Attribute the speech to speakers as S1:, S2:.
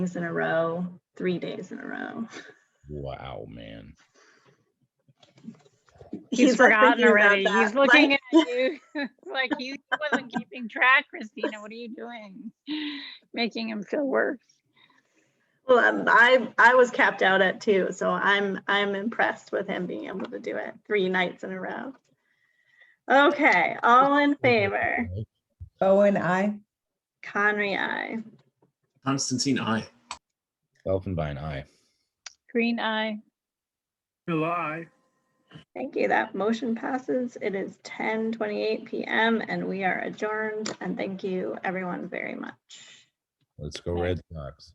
S1: days in a row, three days in a row.
S2: Wow, man.
S3: He's
S1: been
S3: forgotten
S1: thinking about
S3: already.
S1: that,
S3: He's looking
S1: like-
S3: at you. It's like you wasn't keeping track, Christina. What are you doing? Making him feel worse.
S1: Well, um, I I was capped out at two, so I'm I'm impressed with him being able to do it three nights in a row. Okay, all in favor?
S4: Bowen, I.
S1: Conry, I.
S5: Constantine, I.
S2: Elfenbein, aye.
S3: Green eye.
S6: July.
S1: Thank you. That motion passes. It is 10:28 p.m. and we are adjourned. And thank you, everyone, very much.
S2: Let's go Red Sox.